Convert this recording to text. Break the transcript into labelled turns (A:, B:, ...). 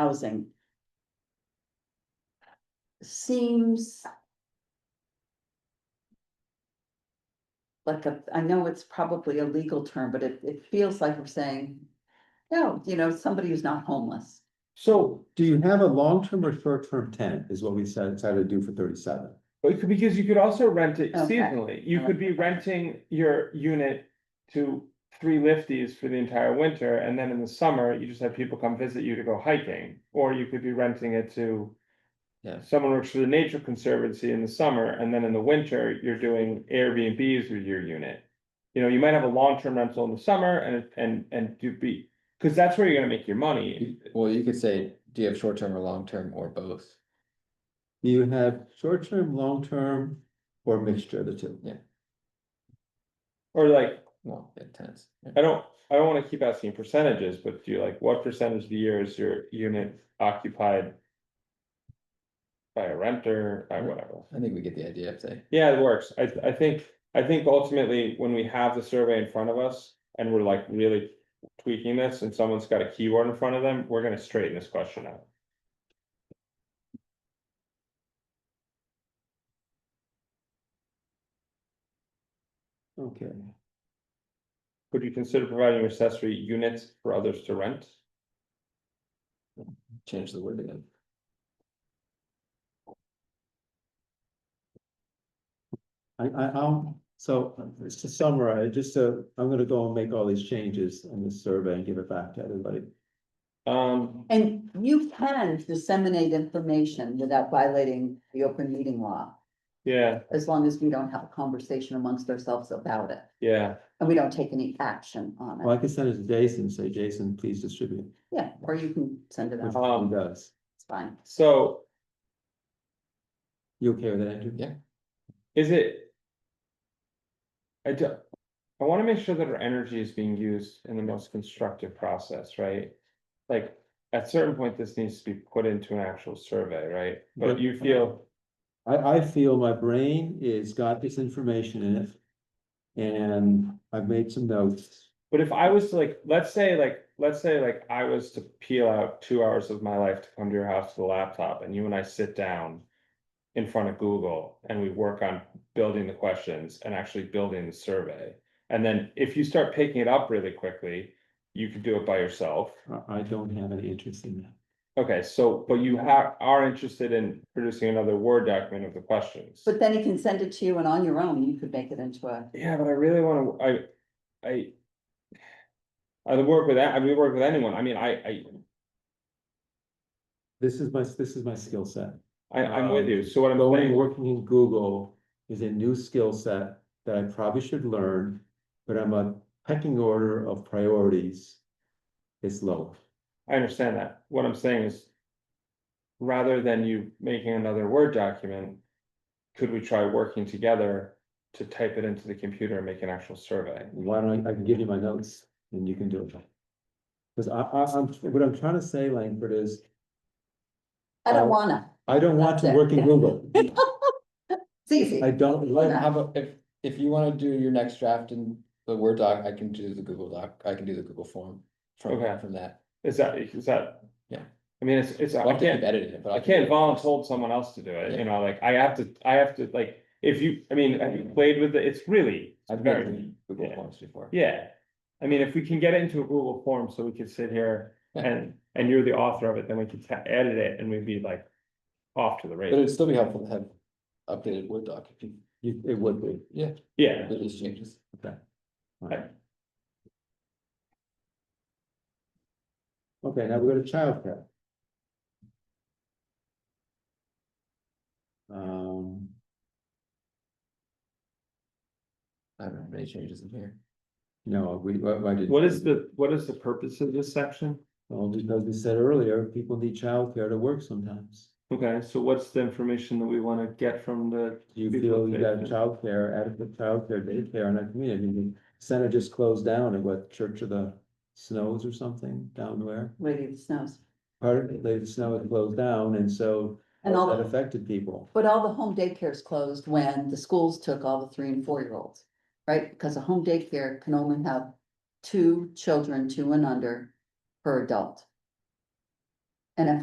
A: housing. Seems. Like a, I know it's probably a legal term, but it, it feels like we're saying, no, you know, somebody who's not homeless.
B: So do you have a long-term or short-term tenant is what we said, decided to do for thirty-seven?
C: But it could- because you could also rent it
A: Okay.
C: seasonally, you could be renting your unit to three lifties for the entire winter, and then in the summer, you just have people come visit you to go hiking. Or you could be renting it to
D: Yeah.
C: someone who works for the Nature Conservancy in the summer, and then in the winter, you're doing Airbnbs with your unit. You know, you might have a long-term rental in the summer and, and, and do be, because that's where you're gonna make your money.
D: Well, you could say, do you have short-term or long-term or both?
B: Do you have short-term, long-term, or a mixture of the two?
C: Or like,
D: Well, intense.
C: I don't, I don't wanna keep asking percentages, but do you like, what percentage of the year is your unit occupied? By a renter, by
D: Yeah.
C: whatever,
D: I think we get the idea if they,
C: yeah, it works, I, I think, I think ultimately, when we have the survey in front of us. And we're like really tweaking this, and someone's got a keyword in front of them, we're gonna straighten this question out.
B: Okay,
C: Could you consider providing accessory units for others to rent?
D: change the word again.
B: I, I, I'll, so just to summarize, just so, I'm gonna go and make all these changes on this survey and give it back to everybody.
C: Um,
A: And you can disseminate information without violating the open meeting law,
C: yeah,
A: as long as we don't have a conversation amongst ourselves about it.
C: yeah,
A: And we don't take any action on
B: Well,
A: it.
B: I can send it to Jason, and say, Jason, please distribute,
A: Yeah, or you can send it
B: which
A: out,
B: he
C: Um,
B: does.
A: it's fine.
C: so
B: You okay with that, Andrew?
D: Yeah.
C: Is it? I do, I wanna make sure that our energy is being used in the most constructive process, right? Like, at certain point, this needs to be put into an actual survey, right? But
B: But-
C: you feel,
B: I, I feel my brain is got this information in it. And I've made some notes.
C: but if I was to like, let's say like, let's say like I was to peel out two hours of my life to come to your house with a laptop and you and I sit down. In front of Google and we work on building the questions and actually building the survey. And then if you start picking it up really quickly, you could do it by yourself.
B: I- I don't have any interest in that.
C: Okay, so, but you have, are interested in producing another Word document of the questions?
A: But then he can send it to you and on your own, you could make it into a,
C: Yeah, but I really wanna, I, I. I would work with that, I would work with anyone, I mean, I,
B: This is my, this is my skill set.
C: I, I, I'm
D: Um,
C: with you, so what I'm
B: Going and
C: saying,
B: working in Google is a new skill set that I probably should learn, but I'm a pecking order of priorities. It's low.
C: I understand that, what I'm saying is. Rather than you making another Word document. Could we try working together to type it into the computer and make an actual survey?
B: Why don't I, I can give you my notes and you can do it. Cause I, I, I'm, what I'm trying to say, Langford, is
A: I don't
B: Oh.
A: wanna,
B: I don't want to work in Google.
A: it's easy.
B: I don't like,
D: How about if, if you wanna do your next draft in the Word doc, I can do the Google doc, I can do the Google form from,
C: Okay.
D: from that.
C: Is that, is that?
D: Yeah.
C: I mean, it's, it's,
D: I'll
C: I
D: have to keep
C: can't,
D: editing it, but
C: I
D: can do
C: can't
D: it.
C: volunteer someone else to do it,
D: Yeah.
C: you know, like, I have to, I have to, like, if you, I mean, have you played with it, it's really,
D: I've
C: very,
D: done Google
C: yeah.
D: forms before.
C: yeah. I mean, if we can get it into a Google form, so we could sit here
D: Yeah.
C: and, and you're the author of it, then we could ta- edit it and we'd be like. Off to the
D: But
C: races,
D: it'd still be helpful to have updated Word doc if you,
B: you, it would be,
D: yeah,
C: yeah,
D: with these changes.
B: okay. Alright. Okay, now we go to childcare. Um.
D: I don't have any changes in here.
B: No, we, what what I did.
C: what is the, what is the purpose of this section?
B: Well, because we said earlier, people need childcare to work sometimes.
C: Okay, so what's the information that we wanna get from the,
B: Do you
C: People
B: feel you got
C: think-
B: childcare, adequate childcare, daycare in our community? The Center just closed down at what, Church of the Snows or something down where?
A: Lady of the Snows.
B: Part of the snow had closed down and so
A: And all,
B: that
A: the-
B: affected people.
A: but all the home daycares closed when the schools took all the three and four year olds. Right? Because a home daycare can only have two children, two and under per adult. And if